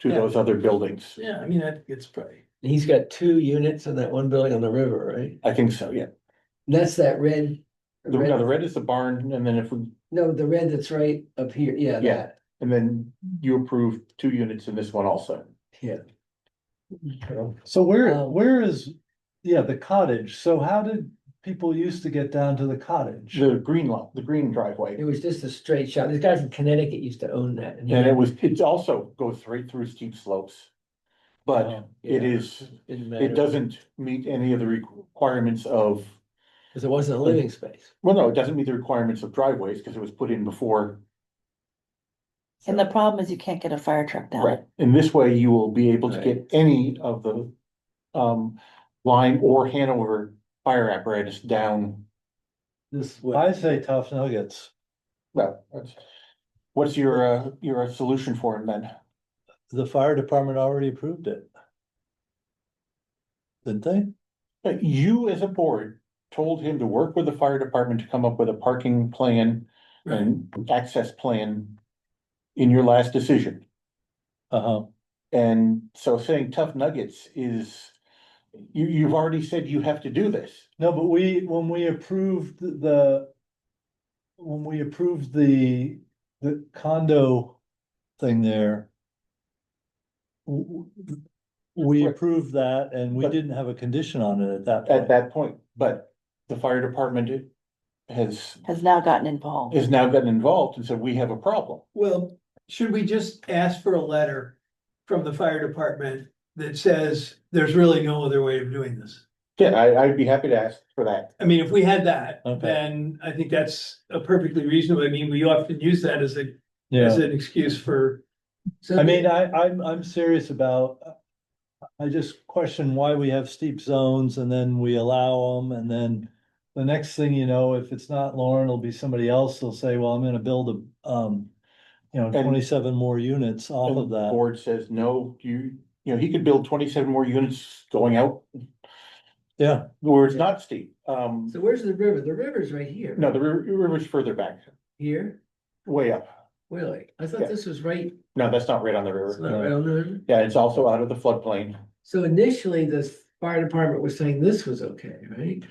to those other buildings. Yeah, I mean, I think it's probably, He's got two units in that one building on the river, right? I think so, yeah. And That's that red. The, no, the red is the barn and then if we, No, the red that's right up here, yeah, Yeah. that, and then you approve two units in this one also. yeah. So where, Um, where is, yeah, the cottage, so how did people used to get down to the cottage? The green lot, the green driveway. It was just a straight shot. This guy from Connecticut used to own that. he- And it was, it also goes right through steep slopes. But Oh, it yeah. is, Didn't it matter, doesn't meet any of the requirements of, Cause it wasn't a living space. well, no, it doesn't meet the requirements of driveways because it was put in before. And the problem is you can't get a fire truck down it. In this way, you will be able to get any of the um line or Hanover fire apparatus down. This, I say tough nuggets, Well, that's- what's your uh, your solution for it then? the fire department already approved it. Didn't they? But Uh, you as a board told him to work with the fire department to come up with a parking plan right, and access plan in your last decision. Uh-huh, And so saying tough nuggets is, you, you've already said you have to do this. no, but we, when we approved the. When we approved the, the condo thing there. w- w- We Right. approved that and we But- didn't have a condition on it at that point. at that point, but the fire department has, has now gotten involved. has now gotten involved and said, we have a problem. well, should we just ask for a letter from the fire department that says there's really no other way of doing this? Yeah, I, I'd be happy to ask for that. I mean, if we had that, Okay. then I think that's a perfectly reasonable, I mean, we often use that as a, Yeah. as an excuse for, So I mean, I, I'm, I'm serious about. I just question why we have steep zones and then we allow them and then. The next thing you know, if it's not Lauren, it'll be somebody else. They'll say, well, I'm gonna build a, um. You know, And- twenty-seven more units off And of the that. Board says, no, you, you know, he could build twenty-seven more units going out Yeah, where it's not steep. Um, So where's the river? The river's right here. no, the river, river's further back, Here, way up. really? I Yeah. thought this was right, No, that's not right on the it's river. not right on the river. Yeah, it's also out of the floodplain. So initially, the fire department was saying this was okay, right?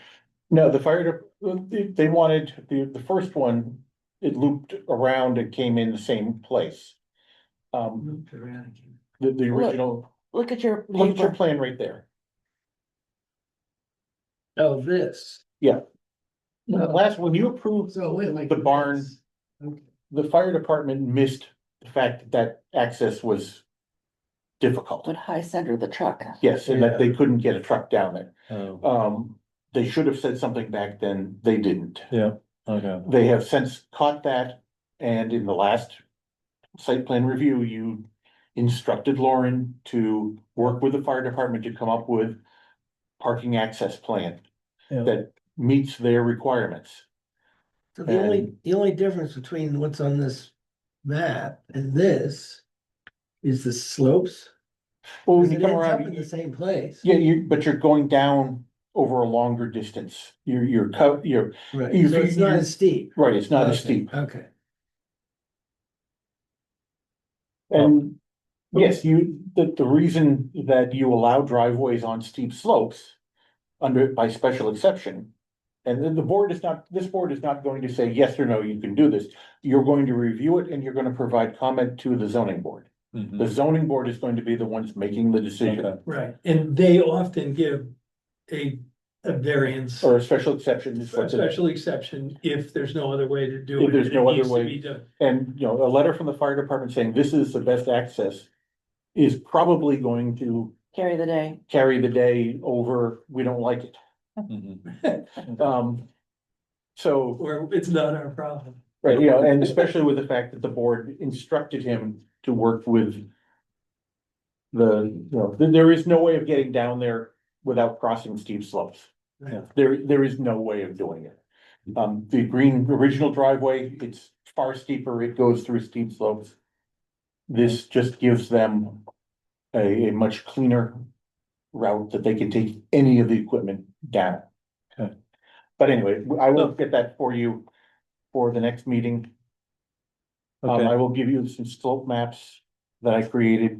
No, the fire, de- they, they wanted, the, the first one, it looped around and came in the same place. Um, Moved around again. the, the Look. original, Look at your look at your paper. plan right there. Oh, this. Oh, Last, when you approved, So wait, like. The barn. this. Okay. the fire department missed the fact that that access was difficult. Would high center the truck. Yes, and that they couldn't get a truck down there. oh, Um, they should have said something back then, they didn't. Oh. okay, They have since caught that, and in the last site plan review, you instructed Lauren to work with the fire department to come up with parking access plan yeah, that meets their requirements. So the only, And- the only difference between what's on this map and this is the slopes. Well, when Because you it come ends up around, in the same place. Yeah, you, but you're going down over a longer distance. You're, you're, co- you're, Right, you- so it's not you- as steep. right, it's not as Okay, steep. Okay, And yes, you, the, the reason that you allow driveways on steep slopes under, by special exception, and then the board is not, this board is not going to say yes or no, you can do this. You're going to review it and you're gonna provide comment to the zoning board. mhm, The zoning board is going to be the ones making the decision okay. right, and they often give a, a variance. or a special exception is A what's in it. special exception if there's no other way to do it. If there's and no it other needs to way. be done. And, you know, a letter from the fire department saying this is the best access is probably going to Carry the day. carry the day over, we don't like it. mhm. Um, so, Or it's not our problem. right, you know, and especially with the fact that the board instructed him to work with the, you know, th- there is no way of getting down there without crossing steep slopes. Yeah. There, there is no way of doing it. Um, the green original driveway, it's far steeper, it goes through steep slopes. This just gives them a, a much cleaner route that they can take any of the equipment down. Okay. But anyway, I will get that for you for the next meeting. Um, Okay. I will give you some slope maps that I created